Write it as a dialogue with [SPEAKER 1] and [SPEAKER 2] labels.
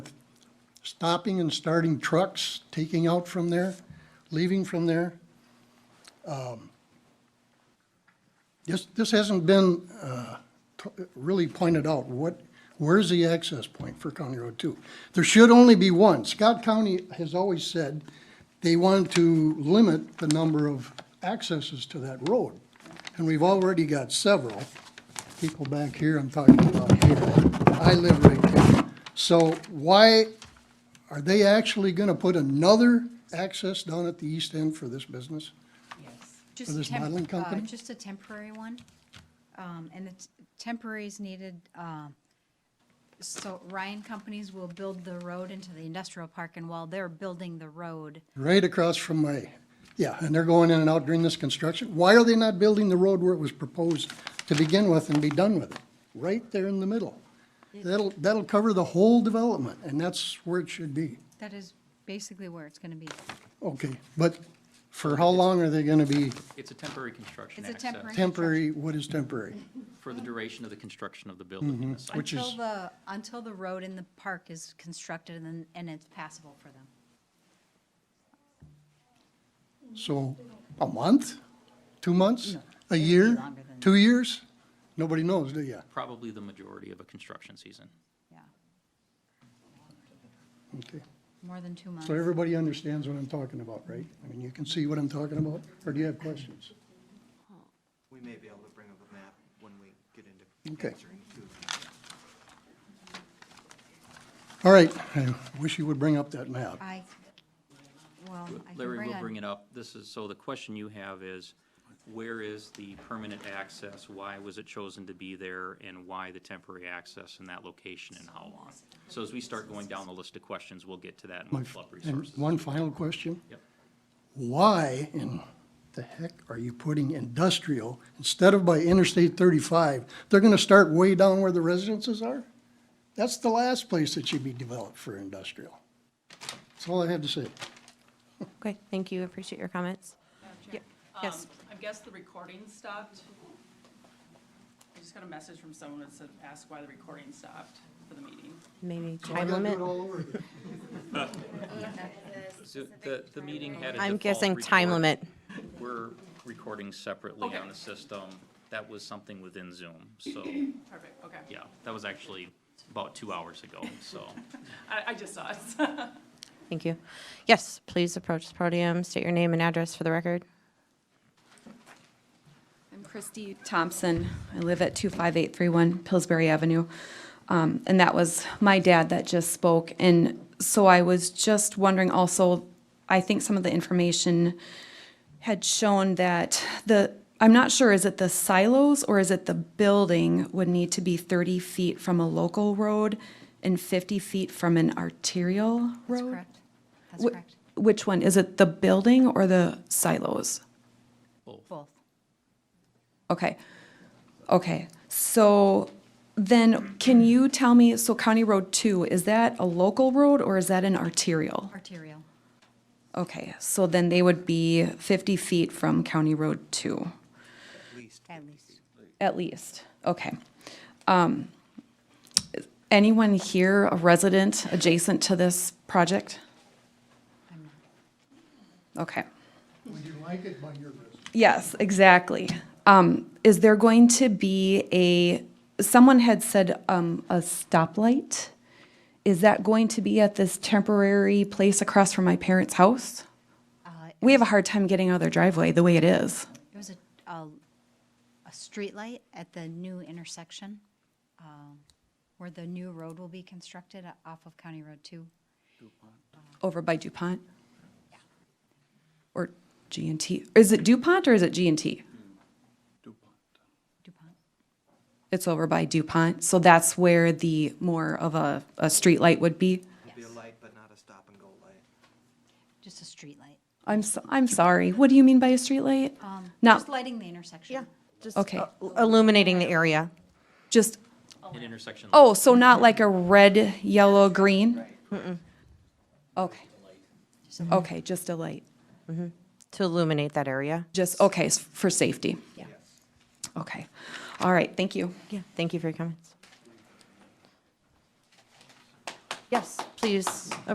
[SPEAKER 1] stopping and starting trucks, taking out from there, leaving from there. Um, This, this hasn't been uh, t- really pointed out, what, where's the access point for County Road Two? There should only be one. Scott County has always said they want to limit the number of accesses to that road. And we've already got several people back here, I'm talking about here. I live right there. So why are they actually gonna put another access down at the east end for this business?
[SPEAKER 2] Just
[SPEAKER 1] this
[SPEAKER 2] temp-
[SPEAKER 1] modeling
[SPEAKER 2] uh,
[SPEAKER 1] company?
[SPEAKER 2] Just a temporary one. Um, And the t- temporary is needed, um, so Ryan Companies will build the road into the industrial park, and while they're building the road,
[SPEAKER 1] Right across from my, yeah, and they're going in and out during this construction. Why are they not building the road where it was proposed to begin with and be done with it? Right there in the middle. That'll, that'll cover the whole development, and that's where it should be.
[SPEAKER 2] that is basically where it's gonna be.
[SPEAKER 1] Okay, but for how long are they gonna be
[SPEAKER 3] It's a temporary construction
[SPEAKER 2] It's a
[SPEAKER 3] access
[SPEAKER 2] temporary-
[SPEAKER 1] temporary, what is temporary?
[SPEAKER 3] for the duration of the construction of the building and the site.
[SPEAKER 1] Mm-hmm. Which
[SPEAKER 2] Until
[SPEAKER 1] is-
[SPEAKER 2] the, until the road in the park is constructed and then, and it's passable for them.
[SPEAKER 1] So, a month? Two months? A
[SPEAKER 2] it'd be
[SPEAKER 1] year?
[SPEAKER 2] longer than
[SPEAKER 1] Two years? Nobody knows, do you?
[SPEAKER 3] Probably the majority of a construction season.
[SPEAKER 2] Yeah,
[SPEAKER 1] Okay.
[SPEAKER 2] more than two months.
[SPEAKER 1] So everybody understands what I'm talking about, right? I mean, you can see what I'm talking about, or do you have questions?
[SPEAKER 4] We may be able to bring up a map when we get into
[SPEAKER 1] Okay.
[SPEAKER 4] answering to
[SPEAKER 1] All right, I wish you would bring up that map.
[SPEAKER 2] I, well, I can
[SPEAKER 3] Larry will bring
[SPEAKER 2] bring
[SPEAKER 3] it up. This is, so the question you have is, where is the permanent access? Why was it chosen to be there? And why the temporary access in that location and how long? So as we start going down the list of questions, we'll get to that and
[SPEAKER 1] My-
[SPEAKER 3] we'll pull up
[SPEAKER 1] And
[SPEAKER 3] resources.
[SPEAKER 1] one final question.
[SPEAKER 3] Yep.
[SPEAKER 1] Why in the heck are you putting industrial instead of by Interstate thirty-five? They're gonna start way down where the residences are? That's the last place that should be developed for industrial. That's all I have to say.
[SPEAKER 5] Okay, thank you, appreciate your comments. Ye- Yes,
[SPEAKER 6] Um, I guess the recording stopped. I just got a message from someone that said, ask why the recording stopped for the meeting.
[SPEAKER 5] maybe
[SPEAKER 1] So I
[SPEAKER 5] time
[SPEAKER 1] gotta do
[SPEAKER 5] limit.
[SPEAKER 1] it all over again.
[SPEAKER 3] So The, the meeting had a
[SPEAKER 5] I'm
[SPEAKER 3] default
[SPEAKER 5] guessing time
[SPEAKER 3] record.
[SPEAKER 5] limit.
[SPEAKER 3] We're recording separately
[SPEAKER 6] Okay.
[SPEAKER 3] on the system. That was something within Zoom, so,
[SPEAKER 6] Perfect, okay.
[SPEAKER 3] yeah, that was actually about two hours ago, so.
[SPEAKER 6] I, I just saw it.
[SPEAKER 5] Thank you. Yes, please approach the podium, state your name and address for the record.
[SPEAKER 7] I'm Christy Thompson. I live at 25831 Pillsbury Avenue. Um, And that was my dad that just spoke. And so I was just wondering also, I think some of the information had shown that the, I'm not sure, is it the silos or is it the building would need to be 30 feet from a local road and 50 feet from an arterial
[SPEAKER 2] That's
[SPEAKER 7] road?
[SPEAKER 2] correct. That's
[SPEAKER 7] Wh-
[SPEAKER 2] correct.
[SPEAKER 7] Which one? Is it the building or the silos?
[SPEAKER 2] Both.
[SPEAKER 7] Okay. Okay. So then can you tell me, so County Road 2, is that a local road or is that an arterial?
[SPEAKER 2] Arterial.
[SPEAKER 7] Okay, so then they would be 50 feet from County Road 2,
[SPEAKER 4] at least.
[SPEAKER 2] At least.
[SPEAKER 7] at least. Okay. Um, is Anyone here a resident adjacent to this project?
[SPEAKER 2] I'm not.
[SPEAKER 7] Okay.
[SPEAKER 1] Would you like it by your business?
[SPEAKER 7] Yes, exactly. Um, is there going to be a, someone had said, um, a stoplight? Is that going to be at this temporary place across from my parents' house?
[SPEAKER 2] Uh,
[SPEAKER 7] We have a hard time getting out of their driveway the way it is.
[SPEAKER 2] It was a, a, a street light at the new intersection, um, where the new road will be constructed o- off of County Road Two.
[SPEAKER 7] Over by DuPont? Or G and T? Is it DuPont or is it G and T?
[SPEAKER 2] DuPont.
[SPEAKER 7] It's over by DuPont, so that's where the more of a, a streetlight would be?
[SPEAKER 4] It'll be a light, but not a stop and go light.
[SPEAKER 2] Just a street light.
[SPEAKER 7] I'm, so- I'm sorry, what do you mean by a streetlight?
[SPEAKER 2] Um,
[SPEAKER 7] Not-
[SPEAKER 2] Just lighting the intersection.
[SPEAKER 5] Just
[SPEAKER 7] Okay.
[SPEAKER 5] uh, illuminating the area.
[SPEAKER 7] Just
[SPEAKER 3] An intersection. like
[SPEAKER 7] Oh, so not like a red, yellow, green? Okay,
[SPEAKER 2] Just a-
[SPEAKER 7] okay, just a light,
[SPEAKER 5] to illuminate that area.
[SPEAKER 7] just, okay, s- for safety? Yeah. Okay, all right, thank you.
[SPEAKER 5] Yeah, thank you for your comments. Yes, please